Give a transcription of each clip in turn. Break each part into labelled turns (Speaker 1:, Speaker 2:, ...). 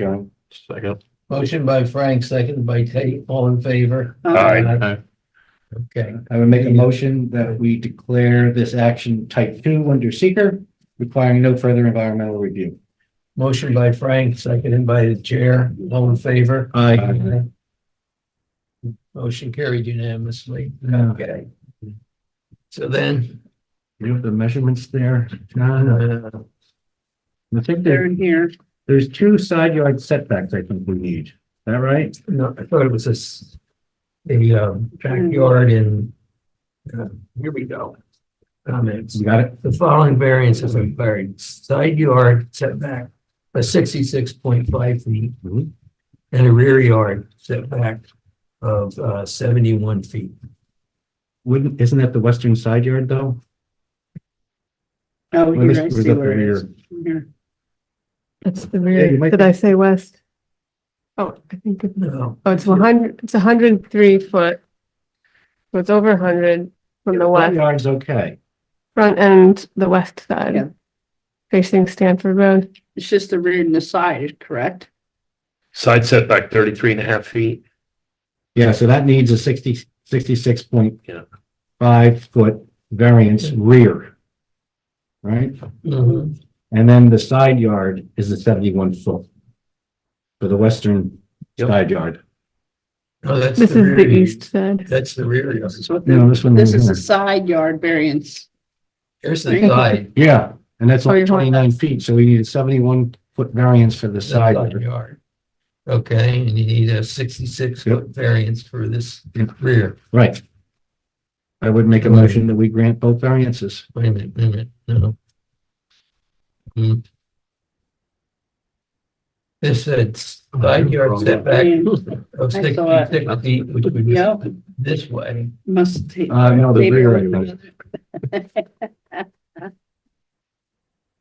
Speaker 1: Karen, second.
Speaker 2: Motion by Frank, seconded by Teddy, all in favor?
Speaker 1: Aye.
Speaker 2: Okay,
Speaker 3: I would make a motion that we declare this action type two under seeker, requiring no further environmental review.
Speaker 2: motion by Frank, seconded by the chair, all in favor?
Speaker 3: Aye.
Speaker 1: Aye.
Speaker 2: Motion carried unanimously.
Speaker 3: Yeah.
Speaker 2: Okay. So then,
Speaker 3: You have the measurements there. John?
Speaker 2: uh,
Speaker 3: I think
Speaker 4: They're
Speaker 3: there,
Speaker 4: in here.
Speaker 3: there's two side yard setbacks I think we need. Is that right?
Speaker 2: no, I thought it was this, the, um,
Speaker 5: Hmm.
Speaker 2: backyard in, uh, here we go. Comments.
Speaker 3: You got it?
Speaker 2: The following variances are required, side yard setback of sixty-six point five feet.
Speaker 5: Hmm.
Speaker 3: Mhm.
Speaker 2: And a rear yard setback of uh seventy-one feet.
Speaker 3: Wouldn't, isn't that the western side yard though?
Speaker 4: Oh,
Speaker 3: Well, this
Speaker 4: here, I
Speaker 3: was
Speaker 4: see
Speaker 3: up
Speaker 4: where it
Speaker 3: here.
Speaker 4: is. Here.
Speaker 5: That's the
Speaker 3: you
Speaker 5: rear.
Speaker 3: might
Speaker 5: Did
Speaker 3: be-
Speaker 5: I say west? Oh, I think, it-
Speaker 2: No,
Speaker 5: oh, it's one hundred, it's hundred and three foot. So it's over hundred from the
Speaker 3: Side
Speaker 5: west,
Speaker 3: yard's okay.
Speaker 5: front and the west
Speaker 4: Yeah.
Speaker 5: side. Facing Stanford Road.
Speaker 4: It's just the rear and the side, correct?
Speaker 1: Side setback thirty-three and a half feet.
Speaker 3: Yeah, so that needs a sixty, sixty-six point
Speaker 1: Yeah.
Speaker 3: five foot variance rear. Right?
Speaker 5: Mm-hmm.
Speaker 2: Mhm.
Speaker 3: And then the side yard is the seventy-one foot. For the western
Speaker 1: Yep.
Speaker 3: side yard.
Speaker 2: no, that's.
Speaker 5: This is the
Speaker 2: rear-
Speaker 5: east side.
Speaker 2: That's the rear yard.
Speaker 4: So
Speaker 3: No, this one.
Speaker 4: This is
Speaker 3: here.
Speaker 4: a side yard variance.
Speaker 2: Here's the side.
Speaker 3: Yeah, and that's
Speaker 5: Oh,
Speaker 3: only
Speaker 5: you're talking-
Speaker 3: twenty-nine feet, so we need a seventy-one foot variance for the
Speaker 2: the
Speaker 3: side
Speaker 2: Side
Speaker 3: yard.
Speaker 2: yard. Okay, and you need a sixty-six foot variance for this
Speaker 3: Yep.
Speaker 2: rear.
Speaker 3: Right. I would make a motion that we grant both variances.
Speaker 2: Wait a minute, wait a minute, no. Hmm. This said side yard setback of
Speaker 4: I saw it.
Speaker 2: sixty-six feet, which would be
Speaker 4: Yep,
Speaker 2: this way.
Speaker 4: must take.
Speaker 3: Uh, no, the
Speaker 4: maybe
Speaker 3: rear,
Speaker 4: a
Speaker 3: I
Speaker 4: little bit.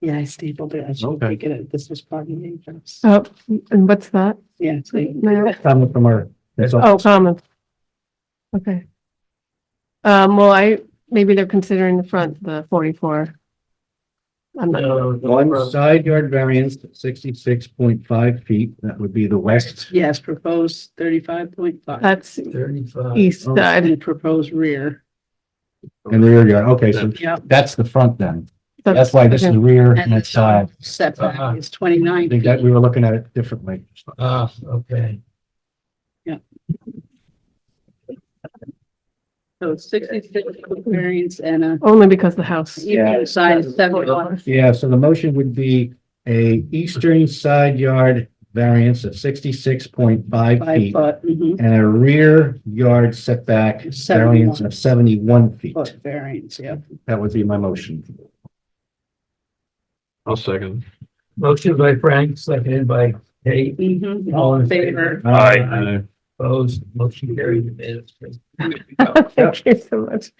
Speaker 4: Yeah, I stapled it. I should
Speaker 3: Okay.
Speaker 4: take it. out. This was part of the address.
Speaker 5: Oh, and what's that?
Speaker 4: Yeah, see,
Speaker 5: No.
Speaker 3: Comment from our, that's all.
Speaker 5: Oh, comments. Okay. Um, well, I, maybe they're considering the front, the forty-four. I'm not,
Speaker 3: One side yard variance, sixty-six point five feet, that would be the west.
Speaker 4: yes, proposed thirty-five point five
Speaker 5: that's
Speaker 2: Thirty-five.
Speaker 3: Oh.
Speaker 5: east side.
Speaker 4: and proposed rear.
Speaker 3: And rear yard, okay, so
Speaker 4: Yep.
Speaker 3: that's the front then. That's why this is rear and
Speaker 4: the
Speaker 3: it's side.
Speaker 2: Uh-huh.
Speaker 4: Setback is
Speaker 3: I
Speaker 4: twenty-nine
Speaker 3: think that
Speaker 4: feet.
Speaker 3: we were looking at it differently.
Speaker 2: Ah, okay.
Speaker 4: So it's sixty-six foot variance and a,
Speaker 5: Only because the house.
Speaker 4: even side is seventy-one.
Speaker 3: Yeah, so the motion would be a eastern side yard variance of sixty-six point five
Speaker 4: Five
Speaker 3: feet
Speaker 4: foot, mhm,
Speaker 3: and a rear yard setback variance of seventy-one feet.
Speaker 4: foot variance, yeah.
Speaker 3: That would be my motion.
Speaker 1: I'll second.
Speaker 2: Motion by Frank, seconded by Kate.
Speaker 4: Mhm,
Speaker 2: All in favor?
Speaker 4: favor.
Speaker 1: Aye.
Speaker 2: Opposed, motion carried. unanimously.
Speaker 5: Thank you so much.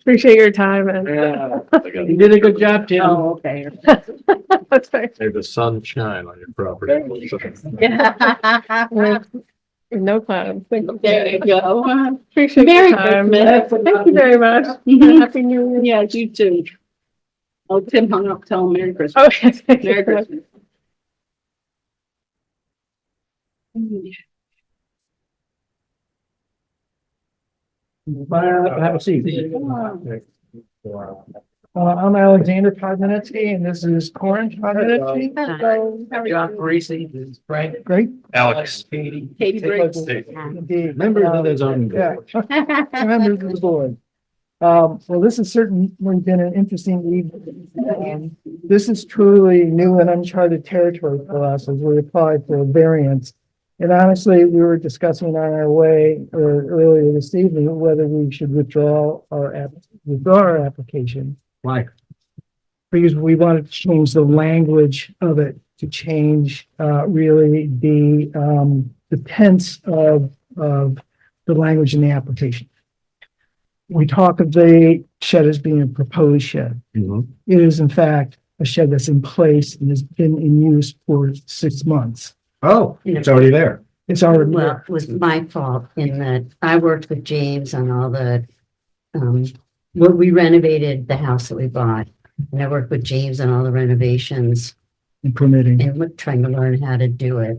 Speaker 5: Appreciate your time and
Speaker 3: You did a good job, Tim.
Speaker 4: Oh, okay.
Speaker 5: that's very,
Speaker 1: May the sun shine on your property.
Speaker 5: with with no clouds. Thank you.
Speaker 4: There you go.
Speaker 5: Appreciate
Speaker 4: Merry
Speaker 5: your time.
Speaker 4: Christmas.
Speaker 5: Thank you very much.
Speaker 4: Mhm.
Speaker 5: Happy New Year.
Speaker 4: Yeah, you too. Oh, Tim hung up, tell him Merry Christmas.
Speaker 5: Okay. thank you
Speaker 4: Merry
Speaker 5: very much.
Speaker 4: Christmas.
Speaker 3: Have a seat.
Speaker 6: Uh, I'm Alexander Podmanitsky and this is Corin Podmanitsky.
Speaker 2: John Parisi, this is Frank.
Speaker 6: Great.
Speaker 1: Alex.
Speaker 2: Katie.
Speaker 4: Katie Briggs.
Speaker 6: Indeed.
Speaker 3: Members of the zoning
Speaker 6: Uh, Yeah,
Speaker 3: board.
Speaker 6: members of the board. Um, well, this has certainly been an interesting evening. Um, This is truly new and uncharted territory for us as we applied for a variance. And honestly, we were discussing on our way or earlier this evening whether we should withdraw our app, withdraw our application.
Speaker 3: Why?
Speaker 6: because we wanted to change the language of it to change uh really the um the tense of of the language in the application. We talk of the shed as being a proposed shed.
Speaker 3: Mhm.
Speaker 6: It is in fact a shed that's in place and has been in use for six months.
Speaker 3: Oh, it's already there.
Speaker 6: It's already
Speaker 7: Well,
Speaker 6: there.
Speaker 7: it was my fault in that I worked with James on all the, um, well, we renovated the house that we bought. And I worked with James on all the renovations
Speaker 6: in permitting.
Speaker 7: and we're trying to learn how to do it.